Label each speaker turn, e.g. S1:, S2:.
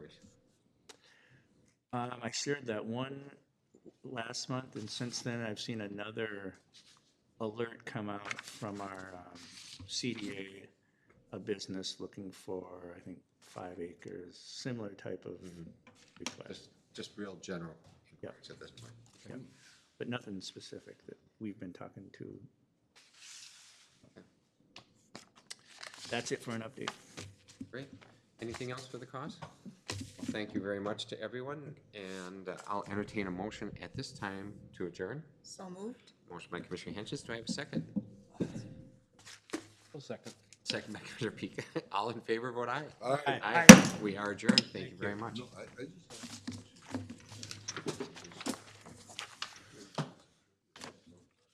S1: Um, I shared that one last month, and since then, I've seen another alert come out from our um, CDA, a business looking for, I think, five acres, similar type of request,
S2: Just, just real general inquiries at this point.
S1: Yeah. but nothing specific that we've been talking to. That's it for an update.
S2: Great. Anything else for the cause? Well, Thank you very much to everyone, and uh, I'll entertain a motion at this time to adjourn.
S3: So moved.
S2: Motion by Commissioner Henches, do I have a second?
S4: I'll second.
S2: Second by Commissioner Pika. All in favor, vote aye.
S5: All right.
S2: Aye. We are adjourned. Thank you very much.
S5: No, I, I just.